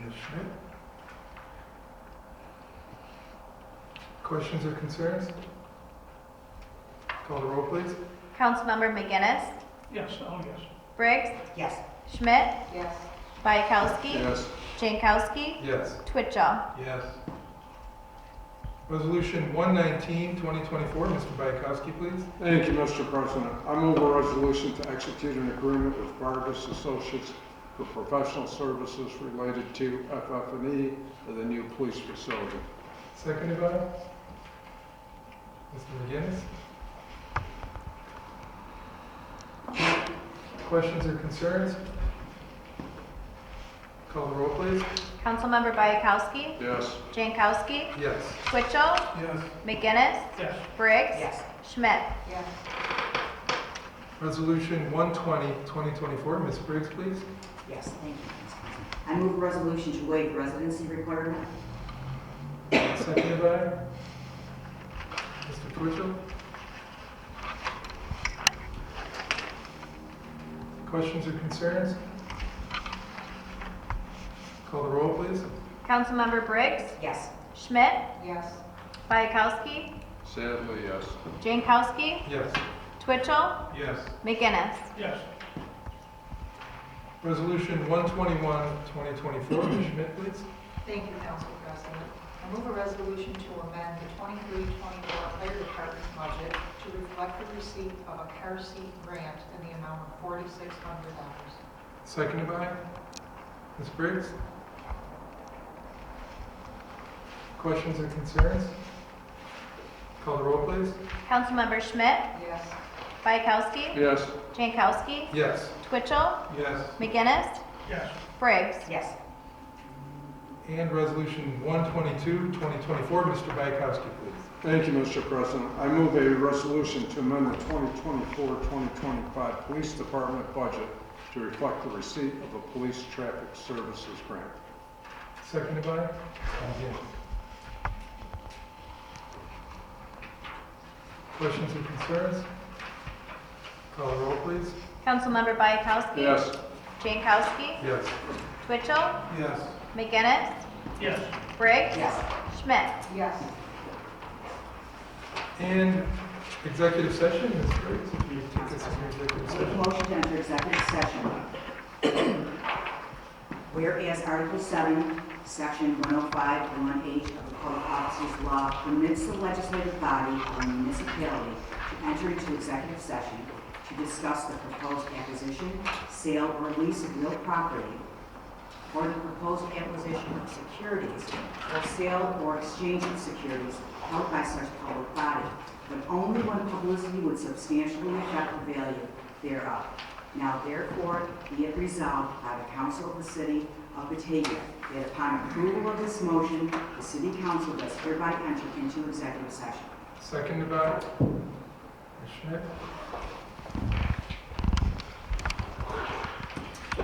Ms. Schmidt. Questions or concerns? Call the roll, please. Councilmember McGinnis, Yes, oh, yes. Briggs, Yes. Schmidt, Yes. Bayakowski, Jankowski, Yes. Twitchell. Yes. Resolution 119, 2024, Mr. Bayakowski, please. Thank you, Mr. President. I move a resolution to execute an agreement with Vargas Associates for professional services related to FF&E E for the new police facility. Seconded by Mr. McGinnis. Questions or concerns? Call the roll, please. Councilmember Bayakowski, Yes. Jankowski, Yes. Twitchell, Yes. McGinnis, Yes, Briggs, Yes. Schmidt. Yes. Resolution 120, 2024, Ms. Briggs, please. Yes, thank you. Vice President. I move a resolution to waive residency requirement. Seconded by Mr. Twitchell. Questions or concerns? Call the roll, please. Councilmember Briggs, Yes. Schmidt, Yes. Bayakowski, Sadly, yes. Jankowski, Yes. Twitchell, Yes. McGinnis. yes, Resolution 121, 2024, Ms. Schmidt, please. Thank you, Council President. I move a resolution to amend the 23-24 fire department budget to reflect the receipt of a car seat grant in the amount of $4,600. Seconded by Ms. Briggs. Questions or concerns? Call the roll, please. Councilmember Schmidt, Yes, Bayakowski, Yes. Jankowski, Yes. Twitchell, Yes. McGinnis, yes, Briggs. Yes. And Resolution 122, 2024, Mr. Bykowski, please. Thank you, Mr. President. I move a resolution to amend the 2024-2025 Police Department budget to reflect the receipt of a police traffic services grant. Seconded by? Yes. Questions or concerns? Call the roll, please. Councilmember Bayakowski, Yes. Jankowski, Yes. Twitchell, Yes. McGinnis, yes, Briggs, Yes. Schmidt. yes. And executive session, Ms. Briggs, if you take us into executive Make a session. motion to enter executive session. Whereas Article 7, Section 105-1H of the Code of Officers Law permits the legislative body or municipality to enter into executive session to discuss the proposed acquisition, sale, or lease of real property, or the proposed acquisition of securities, or sale or exchange of securities held by such public body, but only when publicity would substantially affect the value thereof. Now therefore, be it resolved by the council of the city of Batavia that upon approval of this motion, the city council does hereby enter into executive session. Seconded by? Ms. Schmidt.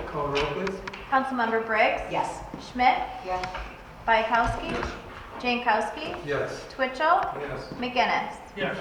Call the roll, please. Councilmember Briggs, Yes. Schmidt, Yes. Bayakowski, Jankowski, Yes. Twitchell, Yes. McGinnis. yes.